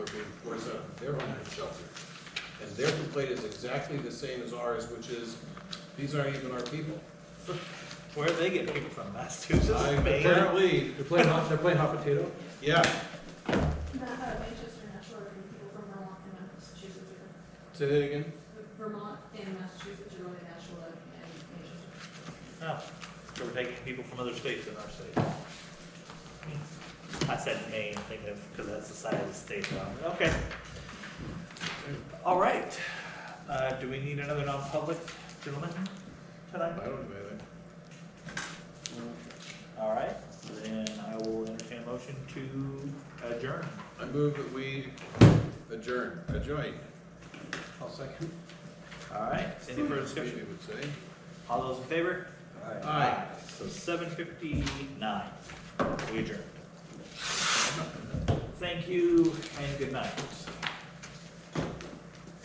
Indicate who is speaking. Speaker 1: being forced out of their own shelter. And their complaint is exactly the same as ours, which is, these aren't even our people.
Speaker 2: Where do they get people from? Massachusetts,
Speaker 1: I-
Speaker 2: Maine?
Speaker 1: Apparently,
Speaker 3: They're playing hot, they're playing hot potato?
Speaker 1: yeah,
Speaker 4: Not, uh, Manchester, not sure, if people from Vermont and Massachusetts are,
Speaker 1: say that again?
Speaker 4: Vermont and Massachusetts are really natural and and Manchester.
Speaker 2: No, so we're taking people from other states in our state. I said Maine, thinking of, because that's the size of the state, um, okay. All right, uh, do we need another non-public, gentlemen,
Speaker 1: I
Speaker 2: tonight?
Speaker 1: don't know anything.
Speaker 2: All right, then I will entertain a motion to adjourn.
Speaker 1: I move that we adjourn, adjourn.
Speaker 3: I'll second.
Speaker 2: All right, any further discussion?
Speaker 1: Maybe would say.
Speaker 2: All those in favor?
Speaker 1: Aye.
Speaker 2: So seven fifty-nine, we adjourn. Thank you and good night.